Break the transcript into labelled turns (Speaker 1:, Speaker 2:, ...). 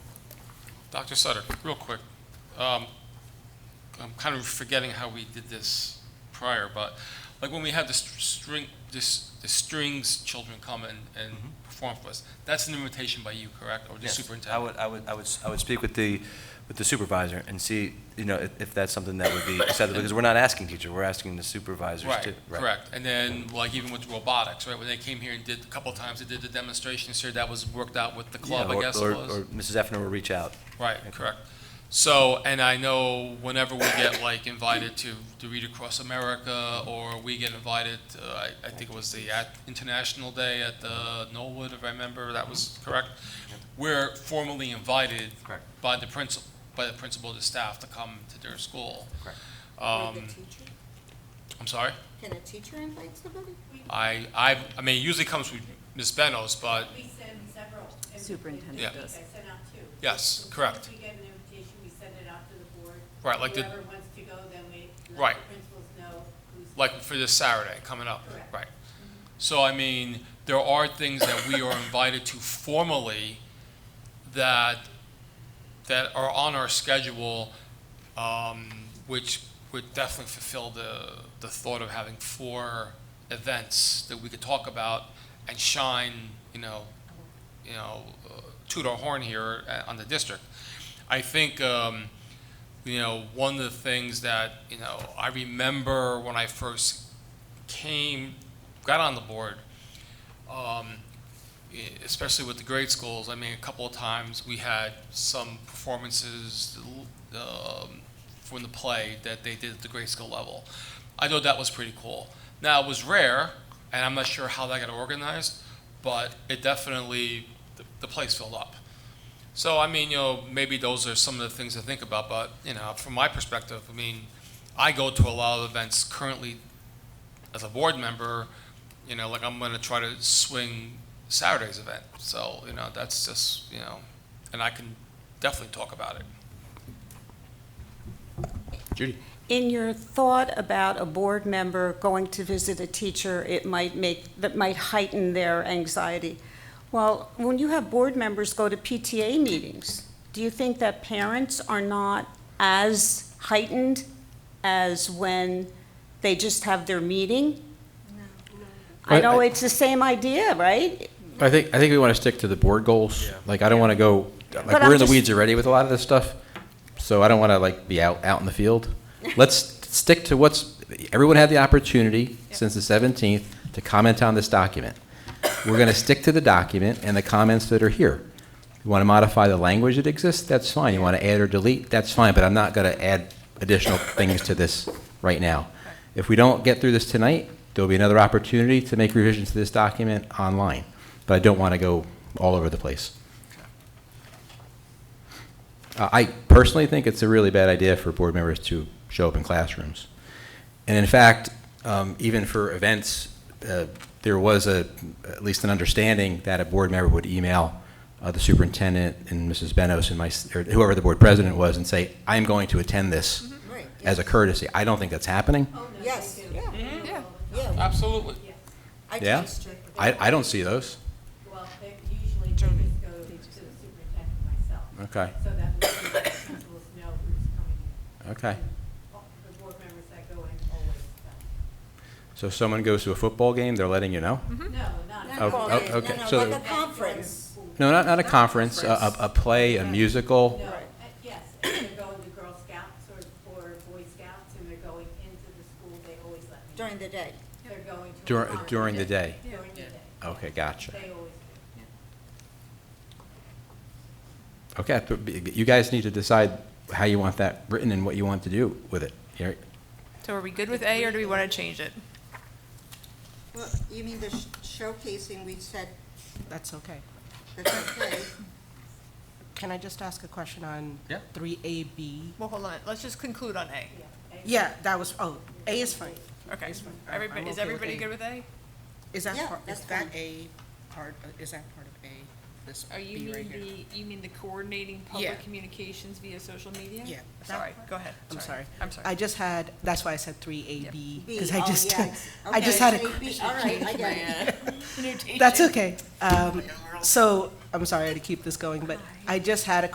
Speaker 1: Dr. Sutter, real quick. Um, I'm kind of forgetting how we did this prior, but like when we had the str- string, this, the strings children come and, and perform for us, that's an invitation by you, correct? Or the
Speaker 2: Mm-hmm. Yes,
Speaker 1: superintendent?
Speaker 2: I would, I would, I would, s- I would speak with the, with the supervisor and see, you know, if, if that's something that would be acceptable, because we're not asking teacher, we're asking the supervisors
Speaker 1: Right,
Speaker 2: to.
Speaker 1: correct. And then like even with robotics, right, when they came here and did, a couple times they did the demonstrations here, that was worked out with the club,
Speaker 2: Yeah,
Speaker 1: I
Speaker 2: or-
Speaker 1: guess it
Speaker 2: or-
Speaker 1: was.
Speaker 2: Or Mrs. Effner will reach out.
Speaker 1: Right,
Speaker 2: Okay.
Speaker 1: correct. So, and I know whenever we get like invited to, to Read Across America, or we get invited, uh, I, I think it was the at- International Day at the Knollwood, if I remember, that was correct. We're formally invited
Speaker 2: Correct.
Speaker 1: by the principal, by the principal of the staff to come to their school.
Speaker 2: Correct.
Speaker 3: Or the
Speaker 1: Um,
Speaker 3: teacher?
Speaker 1: I'm sorry?
Speaker 3: Can a teacher invite somebody?
Speaker 1: I, I, I mean, it usually comes with Ms. Benos, but
Speaker 4: We send several. every-
Speaker 5: Superintendent
Speaker 4: every
Speaker 5: does.
Speaker 4: week. I send out two.
Speaker 1: Yes,
Speaker 4: So as soon
Speaker 1: correct.
Speaker 4: as we get an invitation, we send it out to the board.
Speaker 1: Right, like the-
Speaker 4: Whoever wants to go, then we
Speaker 1: Right.
Speaker 4: let the principals know who's.
Speaker 1: like for this Saturday coming up,
Speaker 4: Correct.
Speaker 1: right? So I mean, there are things that we are invited to formally that, that are on our schedule, um, which would definitely fulfill the, the thought of having four events that we could talk about and shine, you know, you know, uh, toot our horn here uh, on the district. I think, um, you know, one of the things that, you know, I remember when I first came, got on the board, um, e- especially with the grade schools, I mean, a couple of times, we had some performances um, from the play that they did at the grade school level. I thought that was pretty cool. Now, it was rare, and I'm not sure how that got organized, but it definitely, the- the place filled up. So, I mean, you know, maybe those are some of the things to think about, but, you know, from my perspective, I mean, I go to a lot of events currently as a board member, you know, like I'm gonna try to swing Saturday's event, so, you know, that's just, you know, and I can definitely talk about it.
Speaker 6: In your thought about a board member going to visit a teacher, it might make, that might heighten their anxiety. Well, when you have board members go to PTA meetings, do you think that parents are not as heightened as when they just have their meeting? I know it's the same idea, right?
Speaker 7: I think, I think we want to stick to the board goals. Like, I don't want to go,
Speaker 6: But
Speaker 7: like, we're
Speaker 6: I'm
Speaker 7: in the
Speaker 6: just-
Speaker 7: weeds already with a lot of this stuff, so I don't want to, like, be out, out in the field. Let's stick to what's, everyone had the opportunity since the 17th to comment on this document. We're going to stick to the document and the comments that are here. You want to modify the language that exists, that's fine. You want to add or delete, that's fine, but I'm not going to add additional things to this right now. If we don't get through this tonight, there'll be another opportunity to make revisions to this document online, but I don't want to go all over the place. Uh, I personally think it's a really bad idea for board members to show up in classrooms. And in fact, um, even for events, uh, there was a, at least an understanding that a board member would email uh, the superintendent and Mrs. Benos and my, s- or whoever the board president was and say, I'm going to attend this
Speaker 3: Right.
Speaker 7: as a courtesy. I don't think that's happening.
Speaker 4: Oh, no, they
Speaker 3: Yes,
Speaker 4: do.
Speaker 3: yeah.
Speaker 4: They do all the time.
Speaker 3: Yeah,
Speaker 1: Absolutely.
Speaker 3: I
Speaker 7: Yeah?
Speaker 3: trust you.
Speaker 7: I, I don't see those.
Speaker 4: Well, they usually they just go to the superintendent myself.
Speaker 7: Okay.
Speaker 4: So that the principals know who's coming in.
Speaker 7: Okay.
Speaker 4: And all The board members that go in always tell.
Speaker 7: So if someone goes to a football game, they're letting you know?
Speaker 4: No, not.
Speaker 3: Mm-hmm. Not
Speaker 7: Oh,
Speaker 3: all
Speaker 7: oh,
Speaker 3: day.
Speaker 7: okay.
Speaker 3: No, no,
Speaker 7: So-
Speaker 3: Like a conference.
Speaker 7: No, not, not a conference, a, a a play, a musical.
Speaker 4: No, uh, yes, if they're going to Girl Scouts or, or Boy Scouts and they're going into the school, they always let me. know.
Speaker 3: During the day.
Speaker 4: They're going to. a
Speaker 7: During,
Speaker 4: concert.
Speaker 7: during the day?
Speaker 4: During the day.
Speaker 7: Okay, gotcha.
Speaker 4: They always do.
Speaker 7: Okay, but be- you guys need to decide how you want that written and what you want to do with it. Here-
Speaker 5: So are we good with A, or do we want to change it?
Speaker 3: Well, you mean the sh- showcasing, we said,
Speaker 8: That's okay.
Speaker 3: that's okay.
Speaker 8: Can I just ask a question on?
Speaker 7: Yeah.
Speaker 8: Three A, B?
Speaker 5: Well, hold on, let's just conclude on A.
Speaker 8: Yeah, that was, oh, A is fine.
Speaker 5: Okay,
Speaker 8: fine. I'm-
Speaker 5: everybody,
Speaker 8: I'm
Speaker 5: is
Speaker 8: okay with
Speaker 5: everybody
Speaker 8: A.
Speaker 5: good with A?
Speaker 8: Is that
Speaker 3: Yeah,
Speaker 8: part, is
Speaker 3: that's
Speaker 8: that
Speaker 3: fine.
Speaker 8: A part, uh, is that part of A, this
Speaker 5: Are you
Speaker 8: B right here?
Speaker 5: mean the, you mean the coordinating
Speaker 8: Yeah.
Speaker 5: public communications via social media?
Speaker 8: Yeah, that
Speaker 5: Sorry,
Speaker 8: part.
Speaker 5: go ahead.
Speaker 8: I'm sorry.
Speaker 5: I'm
Speaker 8: I
Speaker 5: sorry.
Speaker 8: just had, that's why I said three
Speaker 5: Yeah.
Speaker 8: A, B,
Speaker 3: B,
Speaker 8: because I
Speaker 3: oh,
Speaker 8: just,
Speaker 3: yes.
Speaker 8: I just
Speaker 3: Okay,
Speaker 8: had a
Speaker 3: so B, All right, I get it.
Speaker 8: That's okay. Um, So, I'm sorry to keep this going, but I just had a